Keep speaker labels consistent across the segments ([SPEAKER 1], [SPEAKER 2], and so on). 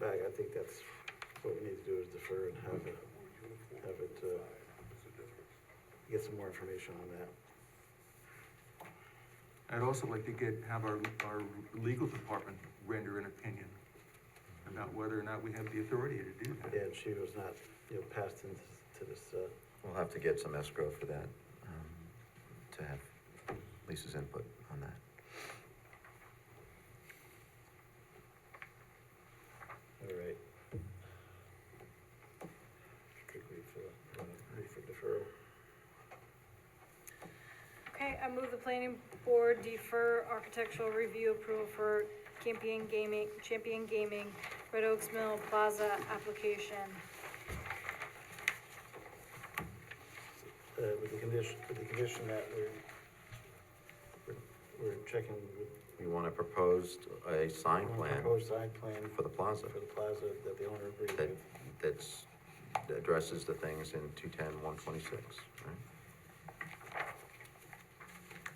[SPEAKER 1] back, I think that's what we need to do is defer and have it, have it, uh, get some more information on that.
[SPEAKER 2] I'd also like to get, have our, our legal department render an opinion about whether or not we have the authority to do that.
[SPEAKER 1] Yeah, and she was not, you know, passed into to this, uh,
[SPEAKER 3] We'll have to get some escrow for that, um, to have Lisa's input on that.
[SPEAKER 1] all right. I think we've, uh, ready for deferral.
[SPEAKER 4] Okay, I move the planning board defer architectural review approval for Champion Gaming, Champion Gaming, Red Oaks Mill Plaza application.
[SPEAKER 1] Uh, with the condition, with the condition that we're, we're- we're checking with
[SPEAKER 3] We want to propose a sign plan
[SPEAKER 1] proposed side plan
[SPEAKER 3] for the plaza
[SPEAKER 1] for the plaza that the owner agreed
[SPEAKER 3] that,
[SPEAKER 1] with.
[SPEAKER 3] that's, that addresses the things in two ten, one twenty-six, right?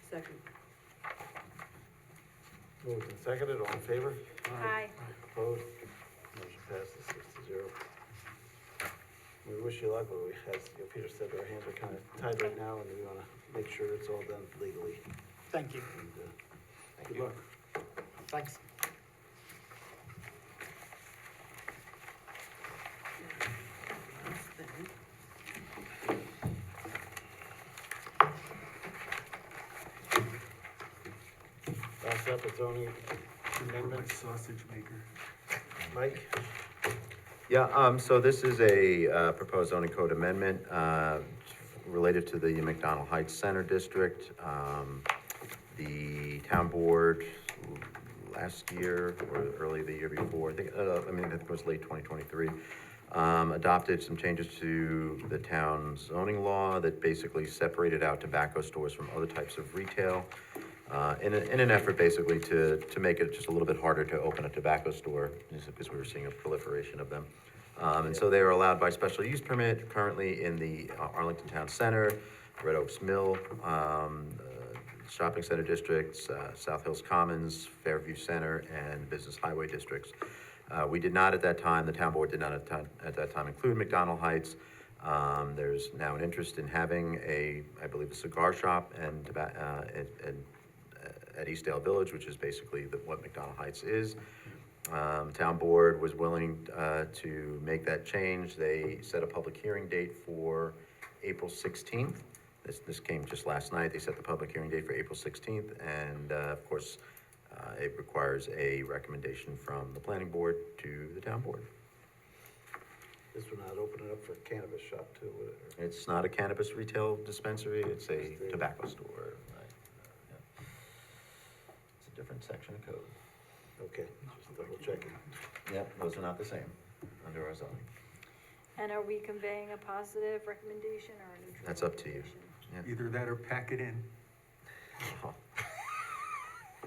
[SPEAKER 5] Second.
[SPEAKER 1] Moved and seconded, all in favor?
[SPEAKER 4] Aye.
[SPEAKER 1] Opposed? Motion passes six to zero. We wish you luck, but we, as you know, Peter said, our hands are kind of tied right now, and we want to make sure it's all done legally.
[SPEAKER 6] Thank you.
[SPEAKER 1] And, uh,
[SPEAKER 6] Thank
[SPEAKER 1] Good
[SPEAKER 6] you.
[SPEAKER 1] luck.
[SPEAKER 6] Thanks.
[SPEAKER 5] That's that.
[SPEAKER 1] Last up, it's only
[SPEAKER 2] Remember my
[SPEAKER 1] amendments.
[SPEAKER 2] sausage maker?
[SPEAKER 1] Mike?
[SPEAKER 3] Yeah, um, so this is a, uh, proposed zoning code amendment, uh, related to the McDonald Heights Center District. Um, the town board last year or early the year before, I think, uh, I mean, I think it was late twenty twenty-three, um, adopted some changes to the town zoning law that basically separated out tobacco stores from other types of retail. Uh, in, a- in an effort basically to, to make it just a little bit harder to open a tobacco store, just because we were seeing a proliferation of them. Um, and so they are allowed by special use permit currently in the uh, Arlington Town Center, Red Oaks Mill, um, uh, shopping center districts, uh, South Hills Commons, Fairview Center, and business highway districts. Uh, We did not at that time, the town board did not at ti- at that time include McDonald Heights. Um, There's now an interest in having a, I believe, a cigar shop and, toba- uh, and- and uh, at Eastdale Village, which is basically the- what McDonald Heights is. Um, Town board was willing uh, to make that change. They set a public hearing date for April 16th. This, this came just last night. They set the public hearing date for April 16th. And uh, of course, uh, it requires a recommendation from the planning board to the town board.
[SPEAKER 1] This would not open it up for cannabis shop too, would it? Or-
[SPEAKER 3] It's not a cannabis retail dispensary, it's a tobacco store. It's a different section of code.
[SPEAKER 1] Okay, just double checking.
[SPEAKER 3] Yep, those are not the same under our zoning.
[SPEAKER 4] And are we conveying a positive recommendation or a neutral?
[SPEAKER 3] That's up to you. Yeah.
[SPEAKER 2] Either that or pack it in.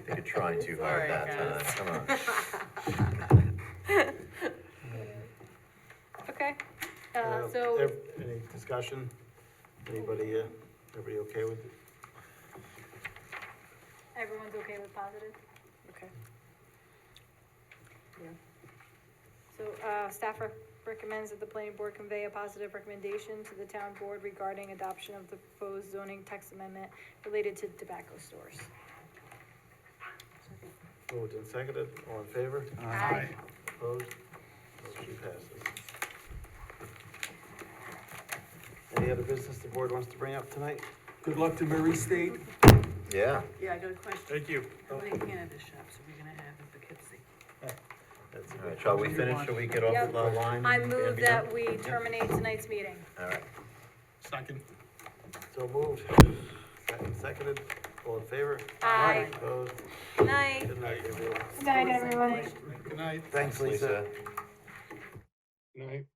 [SPEAKER 3] They could try too hard
[SPEAKER 5] Sorry,
[SPEAKER 3] that
[SPEAKER 5] guys.
[SPEAKER 3] time, come on.
[SPEAKER 4] recommendation? Okay, uh,
[SPEAKER 1] Uh,
[SPEAKER 4] so,
[SPEAKER 1] ev- Any discussion? Anybody, uh, everybody okay with it?
[SPEAKER 4] everyone's okay with positive?
[SPEAKER 5] Okay. Yeah.
[SPEAKER 4] So, uh, staff rec- recommends that the planning board convey a positive recommendation to the town board regarding adoption of the proposed zoning text amendment related to tobacco stores.
[SPEAKER 1] Moved and seconded, all in favor?
[SPEAKER 4] Aye.
[SPEAKER 1] Opposed? Motion passes. Any other business the board wants to bring up tonight?
[SPEAKER 2] Good luck to Murray State.
[SPEAKER 3] Yeah,
[SPEAKER 5] Yeah, I got a question.
[SPEAKER 1] you.
[SPEAKER 5] How many cannabis shops are we gonna have in Poughkeepsie?
[SPEAKER 1] That's a
[SPEAKER 3] all right,
[SPEAKER 1] good
[SPEAKER 3] shall we finish, shall we get off the line?
[SPEAKER 4] I
[SPEAKER 3] and
[SPEAKER 4] move
[SPEAKER 3] be done?
[SPEAKER 4] that we terminate tonight's meeting.
[SPEAKER 3] All right.
[SPEAKER 6] Second.
[SPEAKER 1] So moved. Second- Seconded, all in favor?
[SPEAKER 4] Aye.
[SPEAKER 1] Opposed?
[SPEAKER 4] Night.
[SPEAKER 1] Good night, everyone.
[SPEAKER 4] Good night, everyone.
[SPEAKER 6] Good night.
[SPEAKER 1] Thanks, Lisa.
[SPEAKER 6] Good night.